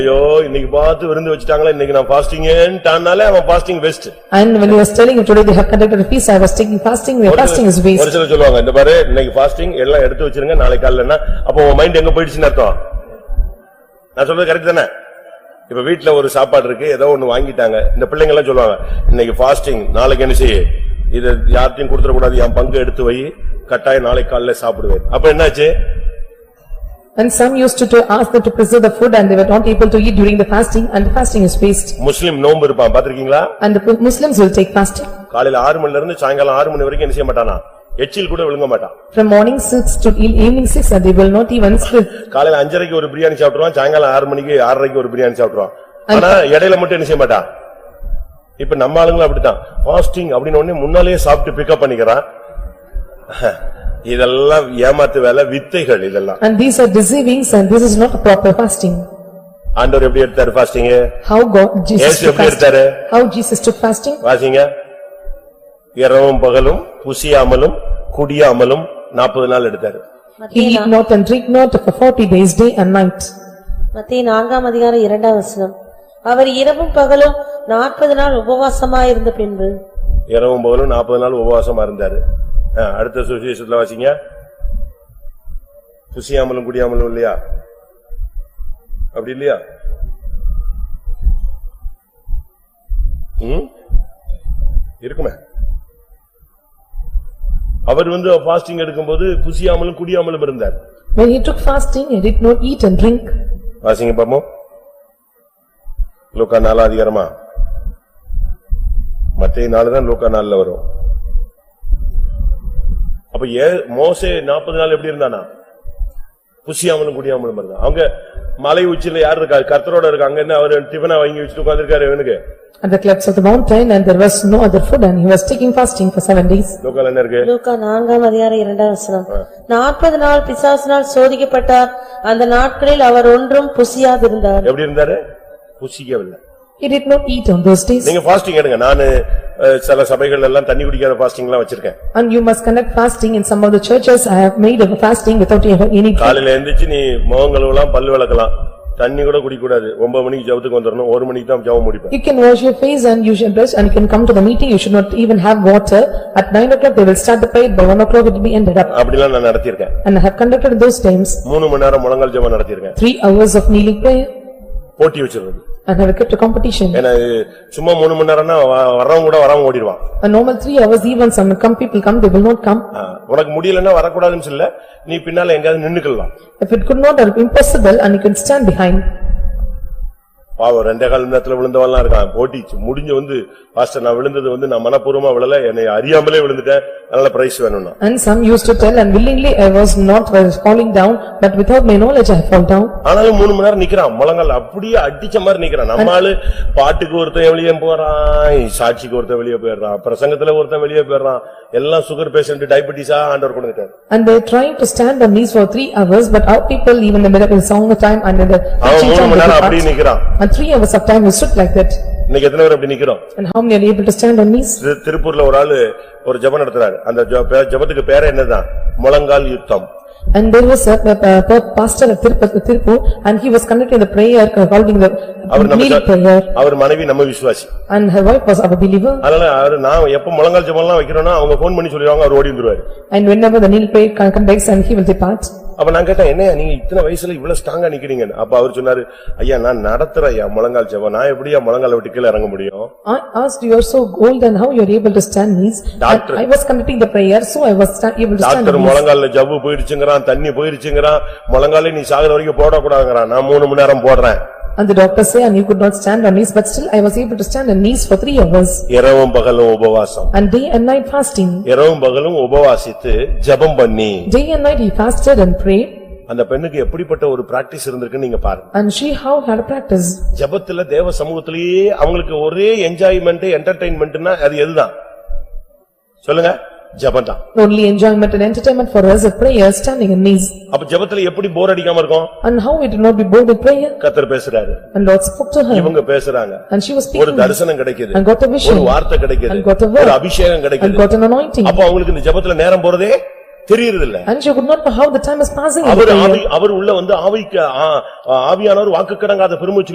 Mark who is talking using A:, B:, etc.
A: ஐயோ இன்னைக்கு பார்த்து விருந்து வச்சுட்டாங்களா இன்னைக்கு நான் ஃபாஸ்டிங்ன்றானாலே அவன் fasting waste
B: And when he was telling him today they have conducted a feast, I was taking fasting, where fasting is waste.
A: ஒரு சிலர் சொல்லுவாங்க இந்த பாரு இன்னைக்கு ஃபாஸ்டிங் எல்லாம் எடுத்து வச்சிருங்க நாளைக்கு காலைலனா அப்ப உன் மைண்ட் எங்க போயிடுச்சுன்னு அர்த்தம் நான் சொல்றது கரெக்ட் தானே இப்ப வீட்ல ஒரு சாப்பாடு இருக்கு ஏதோ ஒண்ணு வாங்கிட்டாங்க இந்த பிள்ளைங்க எல்லாம் சொல்லுவாங்க இன்னைக்கு ஃபாஸ்டிங் நாளைக்கு என்ன செய்ய இத யார்ட்டையும் கொடுத்துட கூடாது என் பங்கு எடுத்து வை கட்டாயம் நாளைக்கு காலையில சாப்பிடுவேன் அப்ப என்னாச்சு
B: And some used to- to ask them to preserve the food and they were not able to eat during the fasting and the fasting is waste.
A: முஸ்லிம் நோன்பு இருப்பான் பாத்திருக்கீங்களா
B: And the Muslims will take fasting
A: காலையில ஆறு மணில இருந்து சாயங்காலம் ஆறு மணி வரைக்கும் என்ன செய்ய மாட்டானா எச்சில் கூட விழுங்க மாட்டான்
B: from morning six to e- evening six and they will not even sleep.
A: காலையில அஞ்சரைக்கு ஒரு பிரியாணி சாப்பிடுவான் சாயங்காலம் ஆறு மணிக்கு ஆறரைக்கு ஒரு பிரியாணி சாப்பிடுவான் ஆனா இடையில மட்டும் என்ன செய்ய மாட்டான் இப்ப நம்ம ஆளுங்களும் அப்படித்தான் ஃபாஸ்டிங் அப்படின்னு உடனே முன்னாலேயே சாப்பிட்டு பிக்கப் பண்ணிக்கிறான் இதெல்லாம் ஏமாத்து வேலை வித்தைகள் இதெல்லாம்
B: And these are deceivings and this is not a proper fasting.
A: ஆண்டவர் எப்படி எடுத்தாரு ஃபாஸ்டிங்
B: How God, Jesus
A: ஏசு
B: took
A: எப்படி
B: fasting.
A: எடுத்தாரு
B: How Jesus took fasting?
A: வாசிங்க இரவும் பகலும் புசியாமலும் குடியாமலும் நாற்பது நாள் எடுத்தாரு
B: He
C: மத்திய
B: eat
C: நா-
B: not and drink not for forty days, day and night.
C: மத்திய நான்காம் அதிகாரம் இரண்டாம் வசனம் அவர் இரவும் பகலும் நாற்பது நாள் உபவாசமாயிருந்த பின்பு
A: இரவும் பகலும் நாற்பது நாள் உபவாசமா இருந்தாரு ஆ, அடுத்த சுவிசேஷத்துல வாசிங்க புசியாமலும் குடியாமலும் இல்லையா அப்படி இல்லையா ம்? இருக்குமே அவர் வந்து பாஸ்டிங் எடுக்கும்போது புசியாமலும் குடியாமலும் இருந்தார்
B: When he took fasting, he did not eat and drink.
A: வாசிங்க பாப்போம் லூக்கா நாலா அதிகாரமா மத்திய நாலு தான் லூக்கா நாலுல வரும் அப்ப ஏ மோசே நாற்பது நாள் எப்படி இருந்தானா புசியாமலும் குடியாமலும் இருந்தான் அவங்க மலை உச்சியில யார் இருக்கா கர்த்தரோட இருக்காங்க என்ன அவரு டிபனா வாங்கி வச்சுட்டு உட்கார்ந்திருக்காரு இவனுக்கு
B: At the cliffs of the mountain and there was no other food and he was taking fasting for seven days.
A: லூக்கால என்ன இருக்கு
C: லூக்கா நான்காம் அதிகாரம் இரண்டாம் வசனம் நாற்பது நாள் பிசாசினால் சோதிக்கப்பட்டார் அந்த நாட்களில் அவர் ஒன்றும் புசியாதிருந்தார்
A: எப்படி இருந்தாரு புசிக்கவில்லை
B: He did not eat on those days.
A: நீங்க ஃபாஸ்டிங் எடுங்க நானு அஹ், சில சபைகள் எல்லாம் தண்ணி குடிக்காத ஃபாஸ்டிங் எல்லாம் வச்சிருக்கேன்
B: And you must conduct fasting in some of the churches. I have made a fasting without ever any.
A: காலையில எந்திரிச்சு நீ முகம் கழுவலாம் பல்லு விளக்கலாம் தண்ணி கூட குடிக்கக்கூடாது ஒன்பது மணிக்கு ஜெபத்துக்கு வந்துரணும் ஒரு மணிக்கு தான் ஜெபம் முடிப்பேன்
B: You can wash your face and you should brush and you can come to the meeting. You should not even have water. At nine o'clock they will start the prayer. By one o'clock it will be ended up.
A: அப்படிலாம் நான் நடத்தியிருக்கேன்
B: And I have conducted those times,
A: மூணு மணி நேரம் முழங்கால் ஜெபம் நடத்தியிருக்கேன்
B: three hours of kneeling prayer
A: போட்டி வச்சிருந்தது
B: and I have kept a competition.
A: ஏன்னா இது சும்மா மூணு மணி நேரம்னா வ- வர்றவன் கூட வராம ஓடிடுவான்
B: A normal three hours even some come people come, they will not come.
A: ஆ, உனக்கு முடியலன்னா வரக்கூடாதுன்னு சொல்ல நீ பின்னால எங்கயாவது நின்னுக்கலாம்
B: If it could not, it will be impossible and you can stand behind.
A: பாவம் ரெண்டே கால் நேரத்துல விழுந்தவன்லாம் இருக்கான் போட்டிச்சு முடிஞ்சு வந்து பாஸ்டர் நான் விழுந்தது வந்து நான் மனப்பூர்வமா விழல என்னை அறியாமலே விழுந்துட்டேன் அதனால பிரைஸ் வேணும்னா
B: And some used to tell and willingly I was not was falling down, but without my knowledge I fall down.
A: ஆனாலும் மூணு மணி நேரம் நிக்கிறான் முழங்கால் அப்படியே அடிச்ச மாதிரி நிக்கிறான் நம்ம ஆளு பாட்டுக்கு ஒருத்தன் வெளியே போறான் சாட்சிக்கு ஒருத்தன் வெளியே போயிடுறான் பிரசங்கத்துல ஒருத்தன் வெளியே போயிடுறான் எல்லாம் சுகர் பேஷண்ட் டயபிட்டிஸா ஆண்டவர் கொடுத்துட்டாரு
B: And they trying to stand on knees for three hours, but our people even the middle of song time and in the.
A: அவன்
B: preaching
A: மூணு மணி நேரம் அப்படியே நிக்கிறான்
B: time, they took parts. And three hours of time we stood like that.
A: இன்னைக்கு எத்தனை பேர் அப்படி நிக்கிறோம்
B: And how many are able to stand on knees?
A: திரு- திருப்பூர்ல ஒரு ஆளு ஒரு ஜெபம் நடத்துறாரு அந்த ஜெப- பே- ஜெபத்துக்கு பேரே என்னதான் முழங்கால் யுத்தம்
B: And there was a a- a pastor at Tirupati, Tirupur, and he was conducting the prayer, uh, holding the
A: அவர் நம்ம
B: kneeling prayer.
A: ச- அவர் மனைவி நம்ம விசுவாசி
B: And her wife was our believer.
A: அதனால அவரு நான் எப்ப முழங்கால் ஜெபம்லாம் வைக்கிறேன்னா அவங்க போன் பண்ணி சொல்லிடுவாங்க அவர் ஓடி வந்துருவாரு
B: And whenever the kneeling prayer con- conducts and he will depart.
A: அப்ப நான் கேட்டேன் என்ன நீங்க இத்தனை வயசுல இவ்வளவு ஸ்ட்ராங்கா நிக்கிறீங்கன்னு அப்ப அவர் சொன்னாரு ஐயா நான் நடத்துறேன் ஐயா முழங்கால் ஜெபம் நான் எப்படியா முழங்கால விட்டு கீழ இறங்க முடியும்
B: I asked, you are so old and how you are able to stand knees? And
A: Doctor.
B: I was conducting the prayer, so I was sta- able to stand
A: doctor
B: on knees.
A: முழங்கால ஜவ்வு போயிடுச்சுங்கிறான் தண்ணி போயிடுச்சுங்கிறான் முழங்காலே நீ சாகுற வரைக்கும் போடக்கூடாதுங்கிறான் நான் மூணு மணி நேரம் போடுறேன்
B: And the doctor say, and you could not stand on knees, but still I was able to stand on knees for three hours.
A: இரவும் பகலும் உபவாசம்
B: And day and night fasting.
A: இரவும் பகலும் உபவாசித்து ஜெபம் பண்ணி
B: Day and night he fasted and prayed,
A: அந்த பெண்ணுக்கு எப்படிப்பட்ட ஒரு பிராக்டிஸ் இருந்திருக்குன்னு நீங்க பாருங்க
B: and she how had a practice.
A: ஜெபத்துல தேவ சமூகத்திலேயே அவங்களுக்கு ஒரே என்ஜாய்மெண்ட் என்டர்டைன்மெண்ட்னா அது எதுதான் சொல்லுங்க ஜெபம் தான்
B: Only enjoyment and entertainment for us is prayer, standing on knees.
A: அப்ப ஜெபத்துல எப்படி போர் அடிக்காம இருக்கும்
B: And how we do not be bored with prayer?
A: கத்தர் பேசுறாரு
B: And Lord spoke to her,
A: இவங்க பேசுறாங்க
B: and she was
A: ஒரு
B: speaking,
A: தரிசனம் கிடைக்குது
B: and got a
A: ஒரு
B: vision,
A: வார்த்தை கிடைக்குது
B: And got a word.
A: ஒரு அபிஷேகம்
B: and
A: கிடைக்குது
B: got an anointing.
A: அப்ப அவங்களுக்கு இந்த ஜெபத்துல நேரம் போறதே தெரியறது இல்ல
B: And she could not know how the time is passing in the
A: our
B: prayer.
A: ஆவி- அவர் உள்ள வந்து ஆவிக்கு ஆ- ஆவியானவர் வாக்கு கடங்காத பெருமூச்சு